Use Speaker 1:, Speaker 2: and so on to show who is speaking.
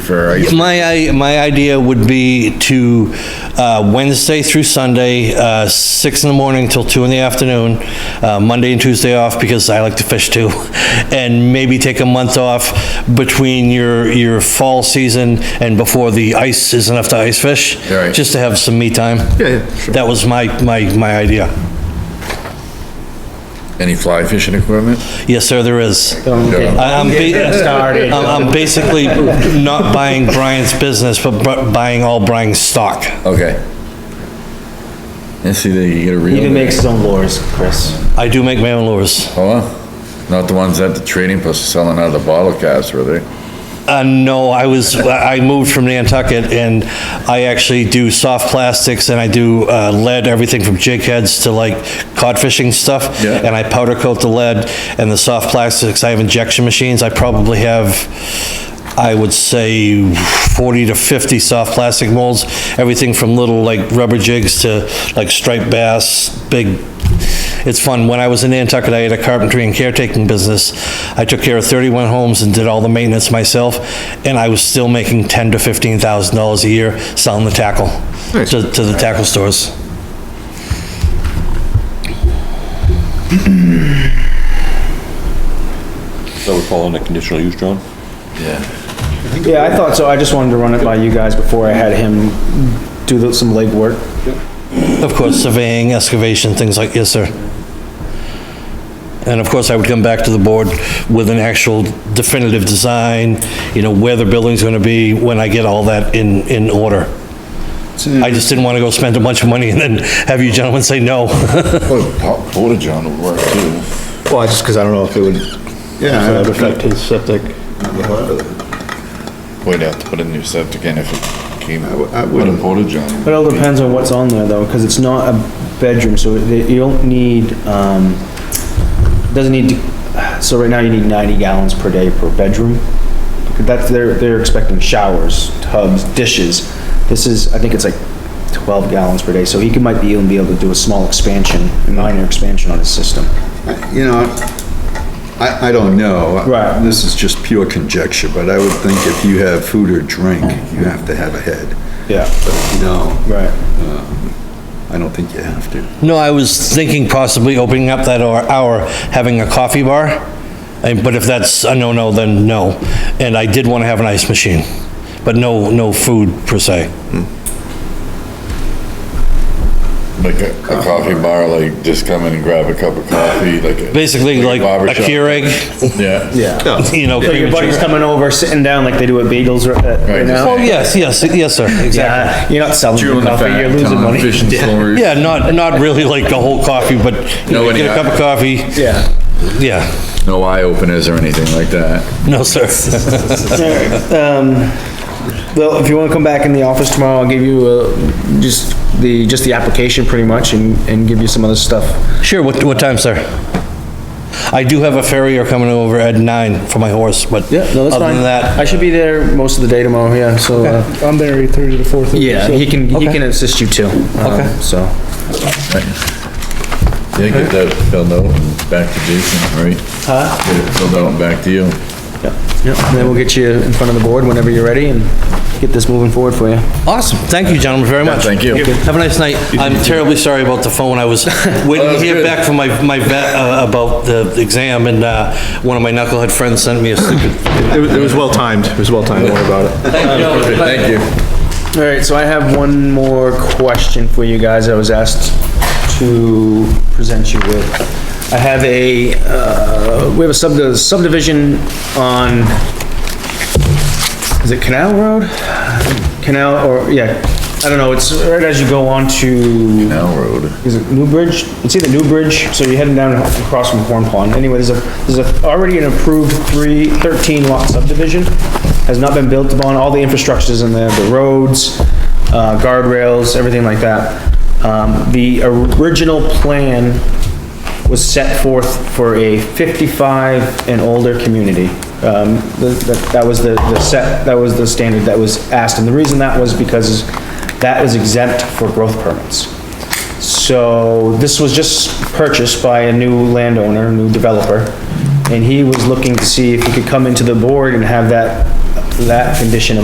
Speaker 1: for, uh, I-
Speaker 2: My, i- my idea would be to, uh, Wednesday through Sunday, uh, six in the morning till two in the afternoon, uh, Monday and Tuesday off because I like to fish too, and maybe take a month off between your, your fall season and before the ice is enough to ice fish.
Speaker 1: Right.
Speaker 2: Just to have some me time.
Speaker 1: Yeah, yeah, sure.
Speaker 2: That was my, my, my idea.
Speaker 1: any fly fishing equipment?
Speaker 2: Yes, sir, there is.
Speaker 3: Don't get
Speaker 2: I- I'm
Speaker 3: don't get
Speaker 2: ba-
Speaker 3: started.
Speaker 2: I'm I'm basically not buying Brian's business, but bu- buying all Brian's stock.
Speaker 1: Okay. And see, that you get a reel.
Speaker 3: He even makes his own lures, Chris.
Speaker 2: I do make my own lures.
Speaker 1: Oh, well, not the ones at the trading post selling out of the bottle caps, were they?
Speaker 2: Uh, no, I was, I moved from Nantucket and I actually do soft plastics and I do uh, lead, everything from jig heads to like cod fishing stuff.
Speaker 1: Yeah.
Speaker 2: And I powder coat the lead and the soft plastics. I have injection machines. I probably have, I would say 40 to 50 soft plastic molds. Everything from little like rubber jigs to like striped bass, big It's fun. When I was in Nantucket, I had a carpentry and caretaking business. I took care of 31 homes and did all the maintenance myself, and I was still making 10 to 15,000 dollars a year selling the tackle to, to the tackle stores.
Speaker 4: That would fall under conditional use, John?
Speaker 3: Yeah, I thought so. I just wanted to run it by you guys before I had him do the- some legwork.
Speaker 2: Of course, surveying, excavation, things like, yes, sir. And of course, I would come back to the board with an actual definitive design, you know, where the building's gonna be when I get all that in, in order. I just didn't wanna go spend a bunch of money and then have you gentlemen say no.
Speaker 1: Port- Porta john would work too.
Speaker 5: Well, it's just because I don't know if it would, if it would affect his septic.
Speaker 1: We'd have to put a new septic in if it came out.
Speaker 5: I
Speaker 1: Put a
Speaker 5: wouldn't.
Speaker 1: porta john.
Speaker 3: But it all depends on what's on there though, because it's not a bedroom, so it- you don't need, um, doesn't need, to- so right now you need ninety gallons per day per bedroom. That's, they're, they're expecting showers, tubs, dishes. This is, I think it's like twelve gallons per day, so he could, might be, even be able to do a small expansion, a minor expansion on his system.
Speaker 5: You know, I, I don't know.
Speaker 3: Right.
Speaker 5: This is just pure conjecture, but I would think if you have food or drink, you have to have a head.
Speaker 3: Yeah.
Speaker 5: No,
Speaker 3: Right.
Speaker 5: I don't think you have to.
Speaker 2: No, I was thinking possibly opening up that hour- hour, having a coffee bar, and- but if that's a no-no, then no. And I did want to have an ice machine, but no, no food per se.
Speaker 1: Like a, a coffee bar, like just come in and grab a cup of coffee, like. a-
Speaker 2: Basically, like
Speaker 1: barber
Speaker 2: a
Speaker 1: shop.
Speaker 2: Keurig,
Speaker 1: Yeah.
Speaker 3: Yeah.
Speaker 2: you know,
Speaker 3: So
Speaker 2: cream
Speaker 3: your
Speaker 2: and
Speaker 3: buddy's
Speaker 2: sugar.
Speaker 3: coming over, sitting down like they do at Beagles right- uh,
Speaker 1: Right.
Speaker 3: right
Speaker 2: Oh,
Speaker 3: now?
Speaker 2: yes, yes, yes, sir, exactly.
Speaker 3: Yeah, you're not selling
Speaker 1: Chewing
Speaker 3: the
Speaker 1: the
Speaker 3: coffee,
Speaker 1: fat,
Speaker 3: you're losing
Speaker 1: telling
Speaker 3: money.
Speaker 1: fishing stories.
Speaker 2: Yeah, not, not really like a whole coffee, but you know,
Speaker 1: Nobody
Speaker 2: get a cup of coffee,
Speaker 3: Yeah.
Speaker 2: yeah.
Speaker 1: No eye openers or anything like that.
Speaker 2: No, sir.
Speaker 3: Um, Well, if you wanna come back in the office tomorrow, I'll give you, uh, just the, just the application pretty much and, and give you some other stuff.
Speaker 2: Sure, what, what time, sir? I do have a farrier coming over at nine for my horse, but other than that,
Speaker 3: I should be there most of the day tomorrow, yeah, so, uh,
Speaker 6: I'm there eight thirty to four thirty.
Speaker 3: yeah, he can, he can assist you too. Okay. So,
Speaker 1: Yeah, get that filled out and back to Jason, right? Huh? Get it filled out and back to you.
Speaker 3: yeah, and then we'll get you in front of the board whenever you're ready and get this moving forward for you.
Speaker 2: awesome. Thank you, gentlemen, very much.
Speaker 1: thank you.
Speaker 2: Have a nice night. I'm terribly sorry about the phone. I was waiting to
Speaker 1: that's
Speaker 2: hear
Speaker 1: good.
Speaker 2: back from my, my vet uh, about the exam and, uh, one of my knucklehead friends sent me a stupid.
Speaker 7: It was- it was well timed, it was well timed, don't worry about it.
Speaker 1: Thank you.
Speaker 3: All right, so I have one more question for you guys I was asked to present you with. I have a, uh, we have a subdi- subdivision on, is it Canal Road? Canal, or, yeah, I don't know, it's right as you go on to
Speaker 1: Now road.
Speaker 3: is it New Bridge? It's either New Bridge, so you're heading down across from Horn Pond. Anyway, there's a, there's a, already an approved three, thirteen lot subdivision. Has not been built upon, all the infrastructure's in there, the roads, uh, guardrails, everything like that. Um, the original plan was set forth for a fifty-five and older community. Um, the- the- that was the, the set, that was the standard that was asked, and the reason that was because that was exempt for growth permits. So this was just purchased by a new landowner, a new developer, and he was looking to see if he could come into the board and have that, that condition